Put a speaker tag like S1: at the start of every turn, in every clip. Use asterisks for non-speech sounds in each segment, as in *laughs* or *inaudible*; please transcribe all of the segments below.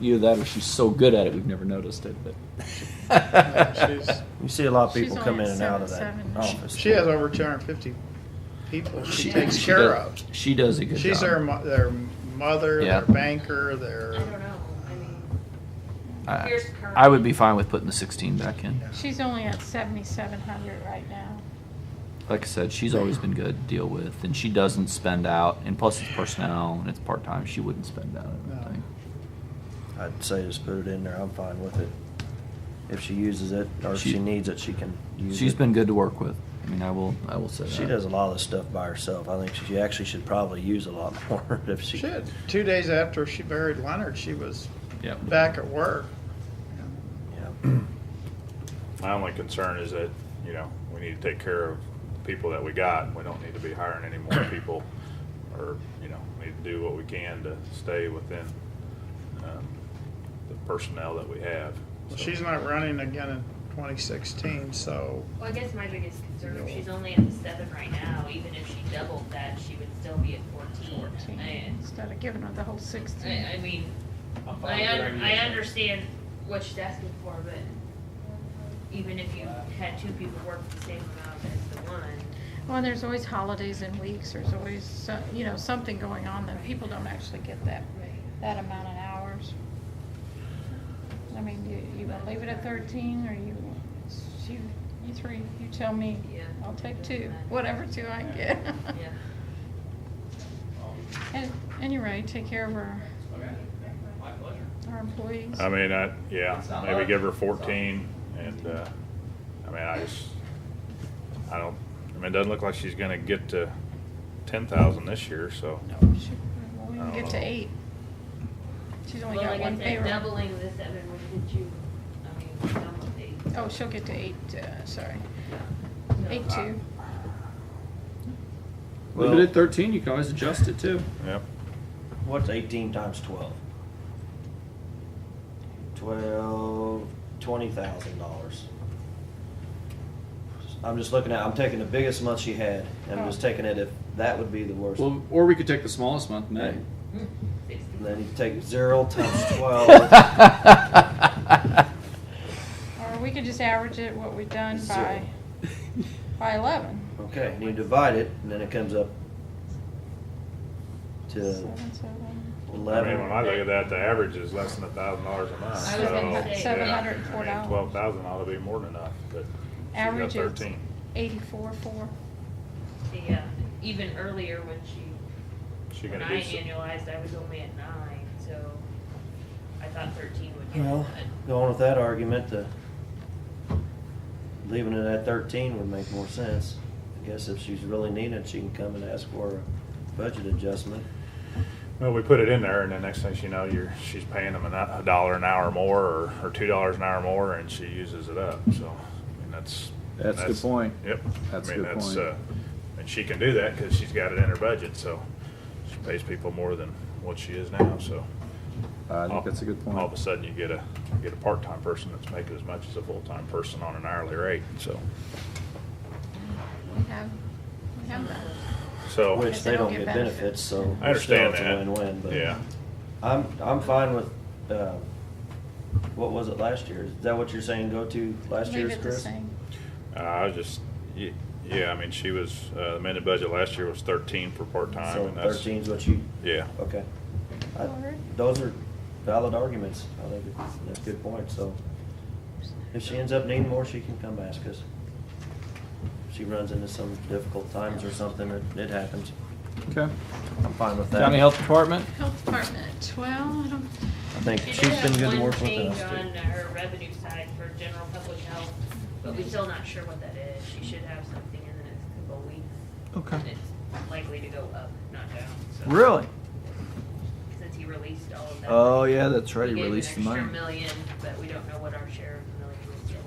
S1: either that or she's so good at it we've never noticed it. But *laughs*
S2: She's-
S3: You see a lot of
S4: She's
S3: people come in
S4: only
S3: and out of that
S4: 77.
S3: office.
S2: She has over 250 people she,
S1: Oh, She-
S2: takes
S1: she
S2: care
S1: does-
S2: of.
S1: She does a good
S2: She's
S1: job.
S2: their mo- their mother,
S1: Yeah.
S2: their banker,
S5: I
S2: their
S5: don't know, I mean,
S1: I,
S5: Here's current.
S1: I would be fine with putting the 16 back in.
S4: She's only at seventy-seven hundred right now.
S1: Like I said, she's always been good to deal with, and she doesn't spend out. And plus, it's personnel and it's part time. She wouldn't spend out. I don't
S2: No.
S1: think.
S3: I'd say just put it in there. I'm fine with it. If she uses it or if
S1: She-
S3: she needs it, she can use
S1: She's
S3: it.
S1: been good to work with. I mean, I will. I will say
S3: She
S1: that.
S3: does a lot of this stuff by herself. I think she actually should probably use a lot *laughs* more if she.
S2: shit. Two days after she buried Leonard, she was
S1: Yep.
S2: back at work.
S3: Yeah.
S6: My only concern is that, you know, we need to take care of the people that we got. We don't need to be hiring any more people or, you know, we need to do what we can to stay within um, the personnel that we have.
S2: Well,
S6: So-
S2: She's not running again in 2016, so
S5: well, I guess my biggest concern, if she's only at the seven right now, even if she doubled that, she would still be at fourteen.
S4: Fourteen,
S5: I-
S4: instead of giving her the whole sixteen.
S5: I, I mean,
S7: I'm fine
S5: I,
S7: with the
S5: un- I
S7: regulation.
S5: understand what she's asking for, but even if you had two people work the same amount as the one,
S4: *laughs* Well, there's always holidays and weeks, there's always, so- you know, something going on that people don't actually get that, that amount of hours. I mean, you, you gonna leave it at thirteen, or you, it's you, you three, you tell me.
S5: Yeah.
S4: I'll take two, whatever two I can get.
S5: yeah.
S4: *laughs* And, and you're right, take care of our,
S7: Okay, my pleasure.
S4: our employees.
S6: I mean, I, yeah,
S7: It's not
S6: maybe
S7: much.
S6: give her fourteen and, uh, I mean, I just, I don't, I mean, it doesn't look like she's gonna get to ten thousand this year, so.
S4: No, she, we can get to
S6: Oh.
S4: eight. She's only
S5: Well,
S4: got
S5: like I
S4: one
S5: said,
S4: payroll.
S5: doubling the seven, would get you, I mean, double the.
S4: Oh, she'll get to eight, uh, sorry,
S5: no.
S4: eight two.
S3: Well,
S1: Leave it at 13. You can always adjust it too.
S6: Yep.
S3: What's 18 times 12? 12, $20,000. I'm just looking at, I'm taking the biggest month she had, and I'm just
S4: Oh.
S3: taking it if that would be the worst.
S1: Well, or we could take the smallest month, May.
S5: Sixty.
S3: Then you take 0
S1: *laughs*
S3: times 12.
S4: Or we could just average it, what we've done
S3: Zero.
S4: by, by eleven.
S3: Okay, and you divide it, and then it comes up to
S4: Seven, seven.
S6: I mean, when I
S3: 11.
S6: look at that, the average is less than a thousand dollars a month,
S5: I was gonna say-
S4: $704.
S6: Twelve thousand ought to be more than enough, but
S4: Average
S6: she got
S4: is
S6: thirteen.
S4: eighty-four, four.
S5: The, uh, even earlier when she,
S6: She
S5: when
S6: gonna
S5: I
S6: do, some-
S5: annualized, I was only at nine, so I thought thirteen would be
S3: Well,
S5: good.
S3: going with that argument, the leaving it at thirteen would make more sense. I guess if she's really needed, she can come and ask for a budget adjustment.
S6: well, we put it in there and the next thing she know, you're, she's paying them a no- a dollar an hour more or, or two dollars an hour more and she uses it up, so, I mean, that's.
S1: That's a good point.
S6: Yep.
S1: That's a
S6: I mean,
S1: good
S6: that's,
S1: point.
S6: uh, And she can do that because she's got it in her budget, so she pays people more than what she is now, so.
S1: I
S6: all-
S1: think that's a good
S6: Oh, All of a
S1: point.
S6: sudden, you get a, get a part-time person that's making as much as a full-time person on an hourly rate, so.
S4: We have, we have that.
S6: So,
S3: Which they don't get benefits, so.
S6: Oh. I understand
S3: still
S6: that.
S3: It's a win-win, but.
S6: Yeah,
S3: I'm, I'm fine with, uh, what was it last year? Is that what you're saying, go to last
S4: Leave
S3: year's,
S4: it the
S3: Chris?
S4: same.
S6: Uh, I was just, y- yeah, I mean, she was, uh, the amended budget last year was thirteen for part-time,
S3: So
S6: and that's,
S3: thirteen's what you,
S6: yeah.
S3: okay. I-
S4: Alright.
S3: Those are valid arguments. I think it's- that's a good point, so. If she ends up needing more, she can come ask us. If she runs into some difficult times or something, it, it happens.
S1: Okay.
S3: I'm fine with that.
S1: County Health Department.
S4: Health department, well, I don't,
S3: I think
S5: She
S3: she's
S5: did
S3: been good
S5: have
S3: to
S5: one
S3: work with
S5: change
S3: us.
S5: on
S3: too.
S5: her revenue side for general public health, but we're still not sure what that is. She should have something in the next couple of weeks.
S1: Okay.
S5: and It's likely to go up, not down, so.
S1: Really?
S5: Since he released all of that.
S1: Oh yeah, that's right.
S5: He
S1: He
S5: gave an
S1: released the
S5: extra
S1: money.
S5: million, but we don't know what our share of the million is yet.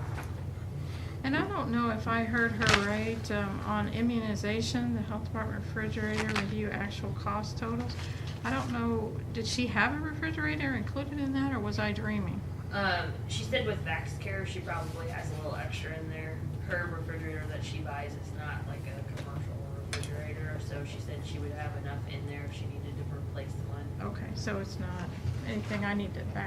S4: and I don't know if I heard her right, um, on immunization, the health department refrigerator review actual cost totals. I don't know, did she have a refrigerator included in that, or was I dreaming?
S5: Um, she said with VaxCare, she probably has a little extra in there. Her refrigerator that she buys is not like a commercial refrigerator, so she said she would have enough in there if she needed to replace one.
S4: Okay, so it's not anything I need to back